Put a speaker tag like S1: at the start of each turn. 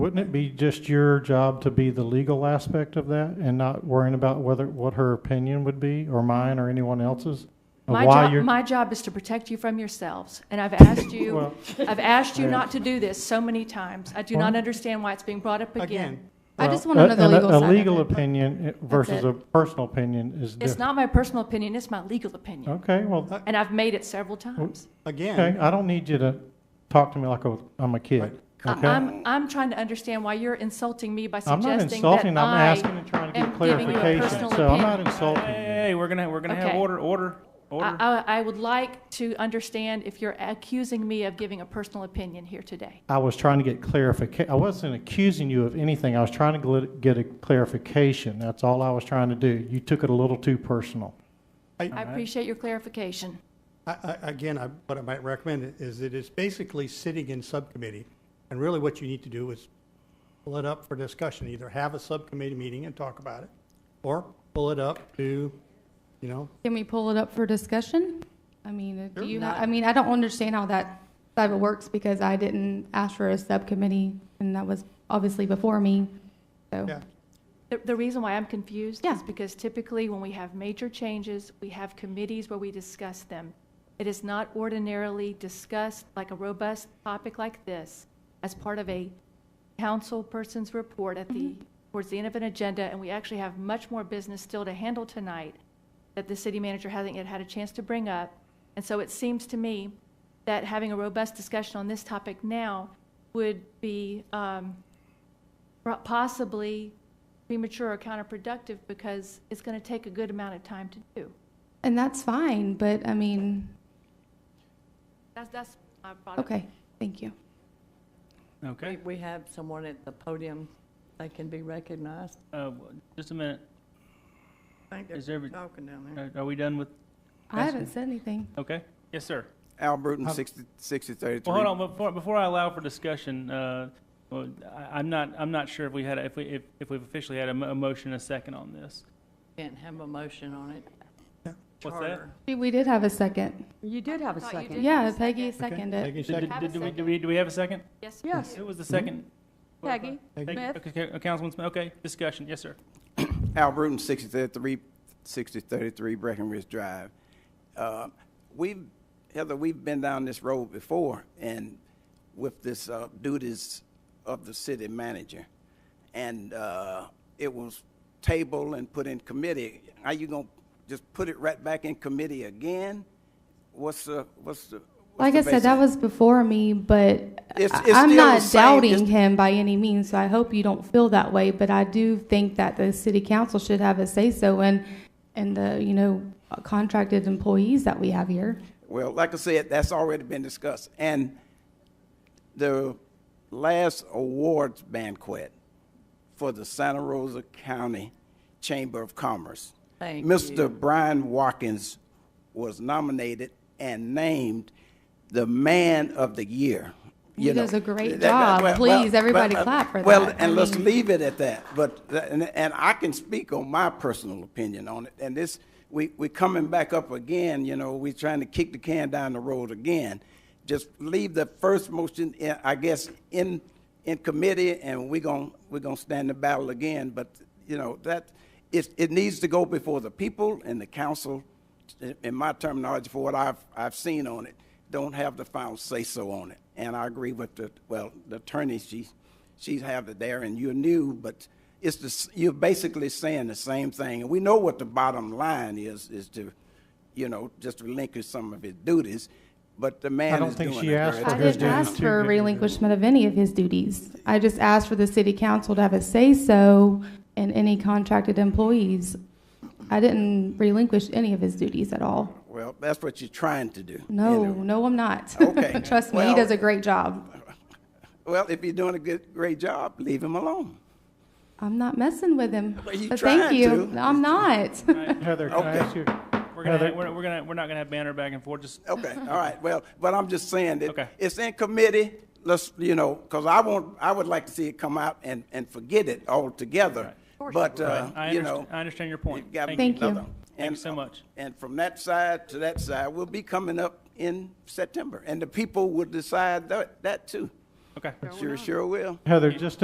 S1: Wouldn't it be just your job to be the legal aspect of that and not worrying about whether, what her opinion would be, or mine, or anyone else's? Of
S2: My
S1: why
S2: job,
S1: you're-
S2: my job is to protect you from yourselves, and I've asked you,
S1: Well-
S2: I've asked you
S1: Yeah.
S2: not to do this so many times. I do not
S1: Well-
S2: understand why it's being brought up again.
S3: I
S1: Well,
S3: just want to know
S1: a-
S3: the legal
S1: a-
S3: side of
S1: A legal
S3: it.
S1: opinion versus
S3: it.
S1: a personal opinion is
S2: It's
S1: different.
S2: not my personal opinion, it's my legal opinion,
S1: Okay, well,
S2: and I've made it several
S1: Oh,
S2: times.
S1: okay,
S4: Again,
S1: I don't need you to talk to me like a- I'm a kid,
S2: I-
S1: okay?
S2: I'm, I'm trying to understand why you're insulting me by
S1: I'm not
S2: suggesting that
S1: insulting, I'm asking
S2: I,
S1: and trying to
S2: am
S1: get
S2: giving you a
S1: clarification,
S2: personal
S1: so I'm not
S2: opinion.
S1: insulting you.
S5: Hey, we're gonna, we're gonna have
S2: Okay.
S5: order, order,
S2: I,
S5: order.
S2: I- I would like to understand if you're accusing me of giving a personal opinion here today.
S1: I was trying to get clarification. I wasn't accusing you of anything. I was trying to gl- get a clarification. That's all I was trying to do. You took it a little too personal.
S2: I appreciate your clarification.
S4: I- I- again, I- what I might recommend is it is basically sitting in subcommittee. And really what you need to do is pull it up for discussion, either have a subcommittee meeting and talk about it, or pull it up to, you know,
S3: Can we pull it up for discussion? I mean, do
S4: Sure.
S3: you, ha- I mean, I don't understand how that side of it works because I didn't ask for a subcommittee and that was obviously before me, so.
S4: yeah.
S2: The, the reason why I'm confused
S3: Yeah.
S2: is because typically when we have major changes, we have committees where we discuss them. It is not ordinarily discussed like a robust topic like this as part of a council person's report at the, towards the end of an agenda, and we actually have much more business still to handle tonight that the city manager hasn't yet had a chance to bring up. And so it seems to me that having a robust discussion on this topic now would be, um, pro- possibly premature or counterproductive because it's going to take a good amount of time to do.
S3: And that's fine, but I mean,
S2: That's, that's my product.
S3: okay, thank you.
S5: Okay,
S6: We have someone at the podium, they can be recognized.
S5: uh, just a minute.
S6: I think
S5: Is every,
S6: talking down
S5: are- are we done with,
S3: I haven't said anything.
S5: okay? Yes, sir.
S7: Al Bruton, 60 6033.
S5: Well, hold on, before, before I allow for discussion, uh, well, I, I'm not, I'm not sure if we had, a- if we, if, if we've officially had a, mo- a motion, and a second on this.
S6: Can't have a motion on it.
S5: What's that?
S6: Charter.
S3: We- We did have a second.
S8: You did have a
S2: Thought you
S8: second.
S2: did.
S3: Yeah, Peggy
S4: Okay.
S3: seconded.
S4: Peggy,
S5: Did-
S4: second.
S5: did-
S2: Have a
S5: did we-
S2: second.
S5: Do we, do we have a second?
S2: Yes.
S8: Yes,
S5: Who was the second?
S8: Peggy
S4: Peggy.
S8: Smith.
S5: Okay, okay, Councilman Smith, okay, discussion, yes, sir.
S7: Al Bruton, 6033, 6033 Breckenridge Drive. Uh, We've, Heather, we've been down this road before, and with this uh, duties of the city manager. And uh, it was tabled and put in committee. Are you going to just put it right back in committee again? What's the, what's the? what's
S3: Like
S7: the
S3: I said, that was
S7: basis?
S3: before me, but
S7: It's-
S3: I-
S7: it's
S3: I'm
S7: still
S3: not
S7: the same,
S3: doubting
S7: it's-
S3: him by any means, so I hope you don't feel that way, but I do think that the city council should have a say-so and, and the, you know, contracted employees that we have here.
S7: Well, like I said, that's already been discussed. And the last awards banquet for the Santa Rosa County Chamber of Commerce.
S6: Thank you.
S7: Mr. Brian Watkins was nominated and named the Man of the Year.
S3: He
S7: You know,
S3: does a great
S7: that- that-
S3: job.
S7: well,
S3: Please,
S7: well,
S3: everybody
S7: well,
S3: clap for
S7: Well,
S3: that. I
S7: and let's
S3: mean-
S7: leave it at that. But, th- and, and I can speak on my personal opinion on it. And this, we, we coming back up again, you know, we trying to kick the can down the road again. Just leave the first motion, in- I guess, in, in committee and we gon', we gonna stand the battle again. But, you know, that, it, it needs to go before the people and the council, in- in my terminology, for what I've, I've seen on it, don't have the final say-so on it. And I agree with the, well, the attorney, she, she's have it there, and you're new, but it's the, s- you're basically saying the same thing. And we know what the bottom line is, is to, you know, just relinquish some of his duties, but the
S1: I
S7: man
S1: don't
S7: is doing
S1: think
S7: it.
S1: she asked
S7: very
S1: for
S3: I
S7: well.
S1: his
S3: didn't
S1: duties
S3: ask
S1: too,
S3: for a
S1: did you?
S3: relinquishment of any of his duties. I just asked for the city council to have a say-so in any contracted employees. I didn't relinquish any of his duties at all.
S7: Well, that's what you're trying to do. you
S3: No,
S7: know.
S3: no, I'm not.
S7: Okay.
S3: Trust me, he
S7: Well-
S3: does a great job.
S7: Well, if you're doing a good, great job, leave him alone.
S3: I'm not messing with him.
S7: Well, you
S3: but thank
S7: tried
S3: you.
S7: to.
S3: I'm not.
S1: Heather, can I
S7: Okay.
S1: ask you?
S5: We're gonna,
S1: Heather-
S5: we're, we're gonna, we're not gonna have banner back and forth, just
S7: Okay, all right, well, but I'm just saying
S5: Okay.
S7: that it's in committee, let's, you know, because I won't, I would like to see it come out and, and forget it altogether. But, uh,
S5: I
S7: you
S5: underst-
S7: know.
S5: I understand your point.
S7: you've got
S5: Thank
S3: you. Thank you.
S7: another.
S5: Thank you
S7: And- uh,
S5: so much.
S7: And from that side to that side, we'll be coming up in September, and the people will decide that, that too.
S5: okay.
S7: Sure, sure will.
S1: Heather, just